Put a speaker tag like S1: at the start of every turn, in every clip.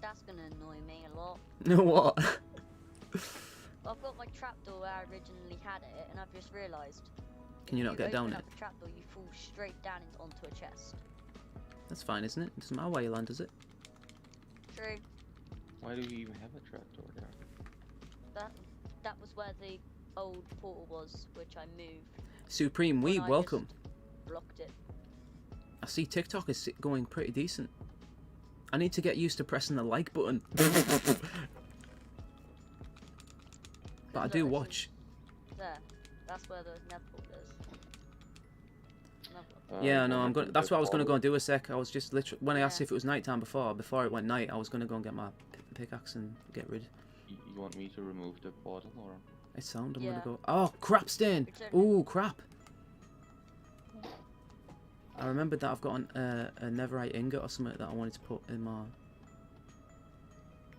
S1: That's gonna annoy me a lot.
S2: what?
S1: I've got my trapdoor where I originally had it, and I've just realised.
S2: Can you not get down it?
S1: The trapdoor, you fall straight down into, onto a chest.
S2: That's fine, isn't it? It doesn't matter where you land, does it?
S1: True.
S3: Why do we even have a trapdoor there?
S1: That that was where the old portal was, which I moved.
S2: Supreme
S1: when
S2: Weeb,
S1: I just
S2: welcome.
S1: Blocked it.
S2: I see TikTok is going pretty decent. I need to get used to pressing the like button.
S1: 'Cause
S2: but I
S1: look,
S2: do
S1: this is-
S2: watch.
S1: There. That's where the nether portal is. Another one.
S3: Uh,
S2: Yeah, no,
S3: what
S2: I'm
S3: happened
S2: going.
S3: to
S2: That's
S3: the
S2: what I was gonna go
S3: ball?
S2: and do a sec. I was just literally when I asked
S1: Yeah.
S2: if it was nighttime before, before it went night, I was gonna go and get my p- pickaxe and get rid.
S3: You, you want me to remove the portal or?
S2: It sound. I'm
S1: Yeah.
S2: gonna go. Oh crap, stain.
S1: Return.
S2: Ooh crap. I remembered that I've got an, uh, a neverite ingot or something that I wanted to put in my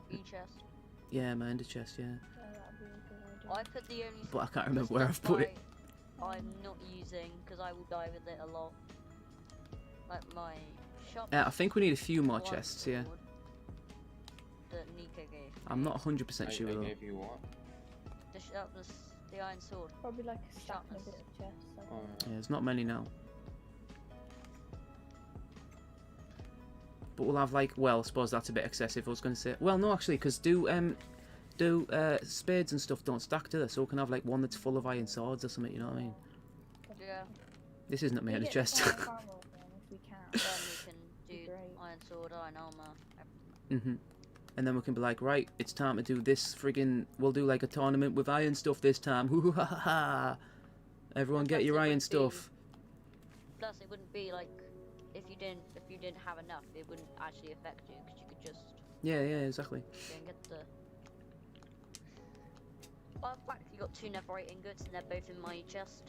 S1: Green E chest.
S2: yeah my ender chest. Yeah,
S4: Yeah, that'd be a good idea.
S1: I put the only.
S2: but I can't remember where I've put it.
S1: I'm not using because I will die with it a lot. Like my shop.
S2: Uh, I think we need a few more
S1: one
S2: chests. Yeah,
S1: sword That Nika gave.
S2: I'm not
S3: I,
S2: 100%
S3: I
S2: sure though.
S3: gave you one.
S1: The sharpness, the iron sword.
S4: Probably like a stack and a
S1: Sharpness.
S4: bit of chest. I
S3: Oh,
S4: think.
S2: Yeah, there's not many now. But we'll have like, well, I suppose that's a bit excessive. I was going to say, well, no, actually, because do um, do uh, spades and stuff don't stack to this, so we can have like one that's full of iron swords or something. You know what I mean?
S1: Yeah.
S2: This isn't
S4: We
S2: my
S4: get
S2: chest.
S4: the fire barrel then, if we can.
S1: Then we can do
S4: Great.
S1: iron sword, iron armor.
S2: hmm And then we can be like, right, it's time to do this friggin'. We'll do like a tournament with iron stuff this time. Hoo hoo ha ha ha! Everyone,
S1: That's
S2: get your
S1: it,
S2: iron
S1: let's do-
S2: stuff.
S1: Plus, it wouldn't be like if you didn't if you didn't have enough, it wouldn't actually affect you because you could just
S2: Yeah, yeah, exactly.
S1: go and get the. I've actually got two netherite ingots and they're both in my chest,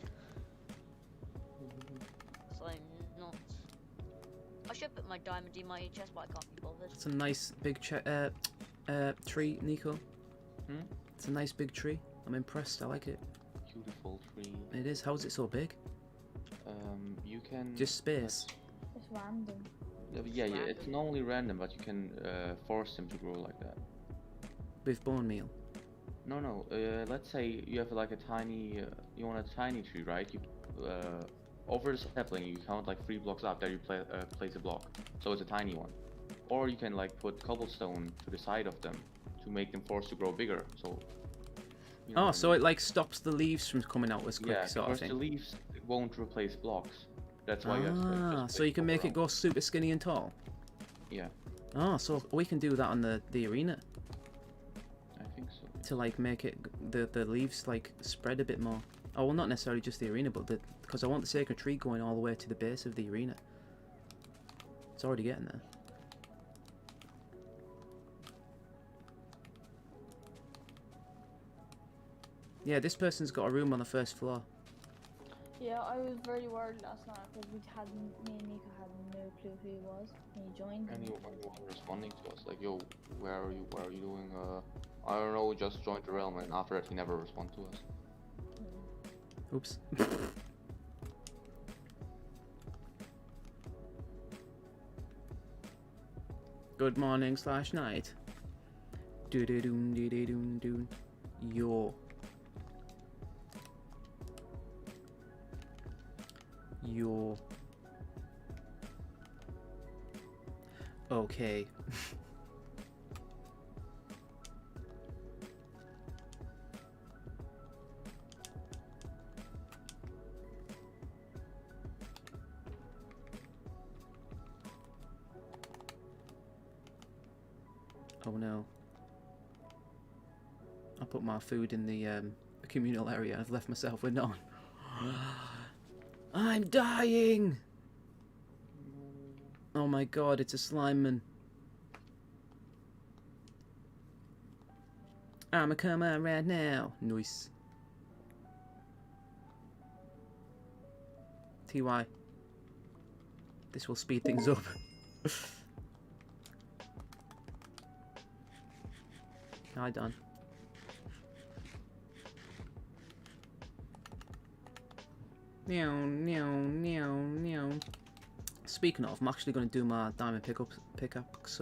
S1: so I'm not. I should put my diamond in my chest, but I can't be bothered.
S2: It's a nice big che- uh, uh, tree, Nico.
S3: Hmm?
S2: It's a nice big tree. I'm impressed. I like it.
S3: Beautiful tree.
S2: It is. How is it so big?
S3: Um, you can.
S2: Just space.
S4: It's random.
S3: Yeah, yeah, yeah, it's
S1: Random.
S3: normally random, but you can uh, force them to grow like that.
S2: With bone meal.
S3: No, no. Uh, let's say you have like a tiny, uh, you want a tiny tree, right? You uh, over the sapling, you count like three blocks up. There you pla uh, place a block, so it's a tiny one. Or you can like put cobblestone to the side of them to make them forced to grow bigger. So. you know what
S2: Oh,
S3: I
S2: so
S3: mean.
S2: it like stops the leaves from coming out as quick,
S3: yeah,
S2: sort of
S3: because the
S2: thing.
S3: leaves won't replace blocks. That's why you have to like,
S2: Ah,
S3: just
S2: so you
S3: place
S2: can make it
S3: cobble
S2: go super skinny and tall.
S3: around. Yeah,
S2: Ah, so we can do that on the the arena
S3: I think so.
S2: to like make it g- the the leaves like spread a bit more. Oh well, not necessarily just the arena, but the because I want the sacred tree going all the way to the base of the arena. It's already getting there. Yeah, this person's got a room on the first floor.
S4: Yeah, I was very worried last night because we had me and Nico had no clue who he was. And he joined. and-
S3: Anyone responding to us, like, yo, where are you? Where are you doing? Uh, I don't know. Just joined the realm, and after that, he never responded to us.
S2: Oops. Good morning slash night. Do do doon do do doon doon. Yo. Yo. Okay. Oh no. I put my food in the um, communal area. I've left myself with none. I'm dying! Oh my god, it's a slime man. I'ma come out right now. Nice. TY. This will speed things up. Hi, Don. Meow, meow, meow, meow. speaking of, I'm actually going to do my diamond pickup pickaxe